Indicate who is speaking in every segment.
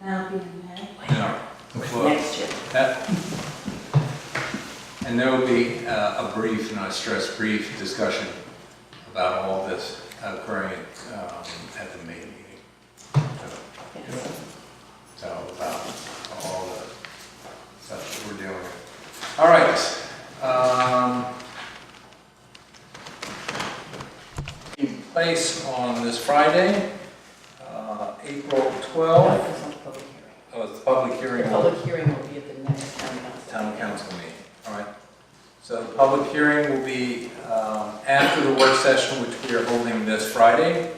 Speaker 1: That'll be in May.
Speaker 2: No. Well,
Speaker 1: Next year.
Speaker 2: that- And there will be uh, a brief, and I stress brief, discussion about all this occurring um, at the May meeting. So-
Speaker 1: Yes.
Speaker 2: So about all the stuff that we're dealing with. All right. um, In place on this Friday, uh, April 12th,
Speaker 1: That was
Speaker 2: oh,
Speaker 1: on the public hearing.
Speaker 2: it's a public hearing.
Speaker 1: The public hearing will be at the next town council.
Speaker 2: town council meeting, all right? So the public hearing will be um, after the work session, which we are holding this Friday,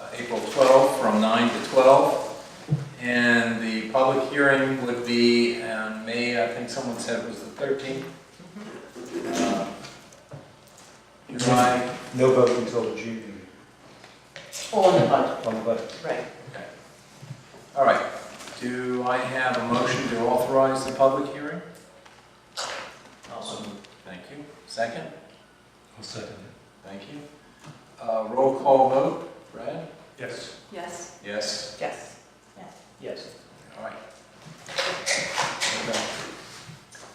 Speaker 2: uh, April 12, from 9 to 12. And the public hearing would be on May, I think someone said it was the 13th. Uh, July,
Speaker 3: No vote until the June meeting
Speaker 1: All in the budget,
Speaker 3: on the budget.
Speaker 1: right.
Speaker 2: all right. Do I have a motion to authorize the public hearing? Thank you. Second?
Speaker 3: I'll second
Speaker 2: Thank you. Uh, Roll call vote, Brad?
Speaker 3: it. Yes.
Speaker 1: Yes.
Speaker 2: Yes.
Speaker 1: Yes.
Speaker 3: Yes.
Speaker 2: All right. Okay.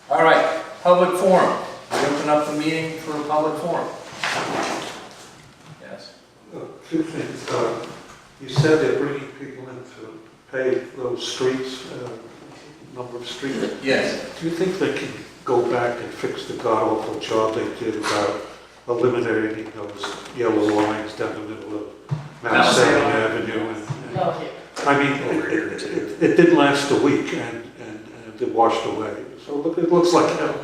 Speaker 2: All right, public forum. We open up the meeting for a public forum. Yes.
Speaker 4: Uh, Two things. uh, You said they're bringing people in to pave those streets, uh, number of streets.
Speaker 2: Yes.
Speaker 4: Do you think they can go back and fix the god awful job they did about eliminating those yellow lines down the middle of Mount
Speaker 2: Mount Zion.
Speaker 4: Zion Avenue?
Speaker 5: uh,
Speaker 4: and-
Speaker 1: No, here.
Speaker 4: I mean, it- it it- it didn't last a week and and- and it washed away. So look, it looks like hell.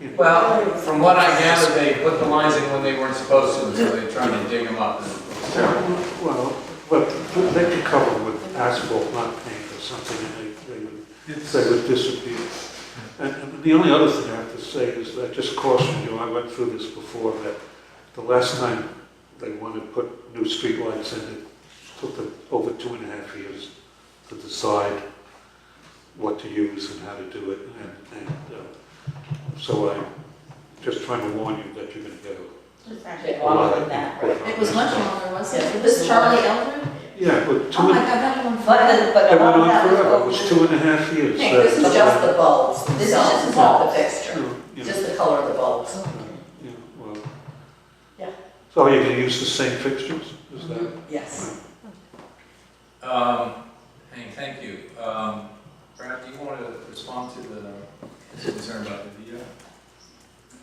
Speaker 4: you know.
Speaker 2: Well, from what I gather, they put the lines in when they weren't supposed to, so they're trying to dig them up.
Speaker 4: Well, but they could cover with asphalt, not paint or something, and they- they would they would disappear. And- And the only other thing I have to say is that just caution you, I went through this before, that the last time they wanted to put new streetlights in, it took them over two and a half years to decide what to use and how to do it. And, and uh, so I'm just trying to warn you that you're going to get a
Speaker 1: It's actually
Speaker 4: a lot
Speaker 1: longer
Speaker 4: of.
Speaker 1: than that, right?
Speaker 6: It was much longer, wasn't
Speaker 1: Yeah.
Speaker 6: it? Was Charlie Eldred?
Speaker 4: Yeah, but
Speaker 6: Oh
Speaker 4: two,
Speaker 6: my
Speaker 4: and-
Speaker 6: God, that one.
Speaker 1: But, but a
Speaker 4: it went
Speaker 1: lot of
Speaker 4: on
Speaker 1: that was
Speaker 4: forever, it
Speaker 1: over the-
Speaker 4: was two and a half years.
Speaker 1: Hey, this is
Speaker 4: That's-
Speaker 1: just the bulbs, this is
Speaker 6: This
Speaker 1: just
Speaker 6: is
Speaker 1: not the
Speaker 6: bulbs.
Speaker 1: fixture,
Speaker 4: you know.
Speaker 1: just the color of the bulbs.
Speaker 4: Yeah, well.
Speaker 1: Yeah.
Speaker 4: So are you going to use the same fixtures? Is that?
Speaker 1: Mm-hmm. Yes.
Speaker 2: Um, Hank, thank you. Um, Brad, do you want to respond to the concern about the VDOT?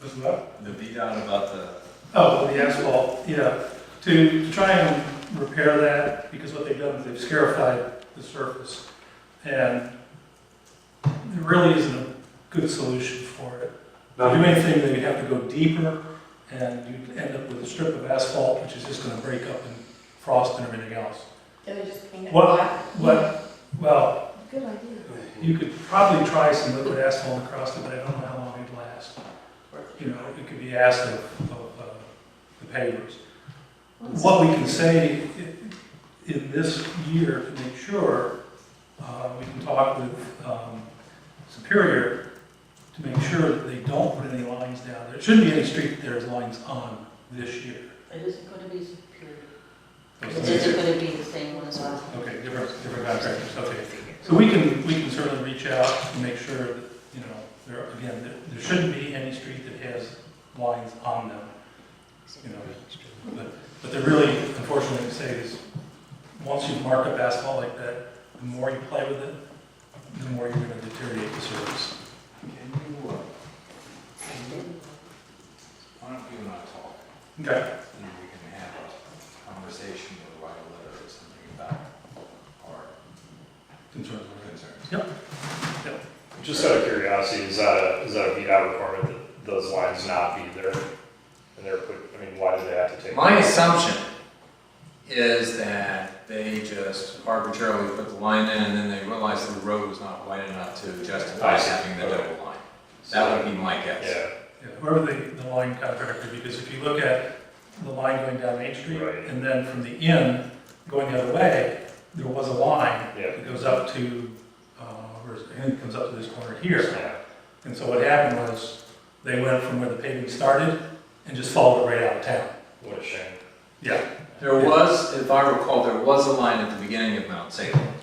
Speaker 5: Was what?
Speaker 2: The VDOT about the,
Speaker 5: Oh, the asphalt, yeah. To to try and repair that, because what they've done is they've scarified the surface. And there really isn't a good solution for it.
Speaker 4: Um,
Speaker 5: To do anything, they have to go deeper, and you end up with a strip of asphalt, which is just gonna break up and frost and everything else.
Speaker 1: Can we just paint it
Speaker 5: What-
Speaker 1: black?
Speaker 5: What, well,
Speaker 6: Good idea.
Speaker 5: you could probably try some liquid asphalt across it, but I don't know how long it'd last. you know, it could be asked of, of uh, the pavers. What we can say i- in this year to make sure, uh, we can talk with um, Superior to make sure that they don't put any lines down there. It shouldn't be any street that there's lines on this year.
Speaker 6: It isn't gonna be superior.
Speaker 5: Okay,
Speaker 6: gonna be the same one as well?
Speaker 5: different, different contractors, okay. So we can, we can certainly reach out and make sure that, you know, there, again, there- there shouldn't be any street that has lines on them. You know, But, but they're really, unfortunately, say is, once you mark up asphalt like that, the more you play with it, the more you're gonna deteriorate the surface.
Speaker 2: can you, uh, can you- why don't you and I talk?
Speaker 5: Okay.
Speaker 2: and we can have a conversation or write a letter or something about our
Speaker 5: Concerns.
Speaker 2: concerns.
Speaker 7: Just out of curiosity, is that a, is that a VDOT requirement that those lines not be there? And they're put, I mean, why do they have to take?
Speaker 2: My assumption is that they just arbitrarily put the line in and then they realized that the road was not wide enough to justify
Speaker 7: I see.
Speaker 2: having the double line. That would be my guess.
Speaker 7: Yeah,
Speaker 5: Yeah, Whoever the, the line contractor, because if you look at the line going down Main Street,
Speaker 7: Right.
Speaker 5: and then from the end, going the other way, there was a line
Speaker 7: yeah.
Speaker 5: that goes up to, uh, where's, I think it comes up to this corner here.
Speaker 7: Yeah.
Speaker 5: And so what happened was, they went from where the paving started and just followed it right out of town.
Speaker 7: What a shame.
Speaker 5: Yeah.
Speaker 2: There was, if I recall, there was a line at the beginning of Mount Salem.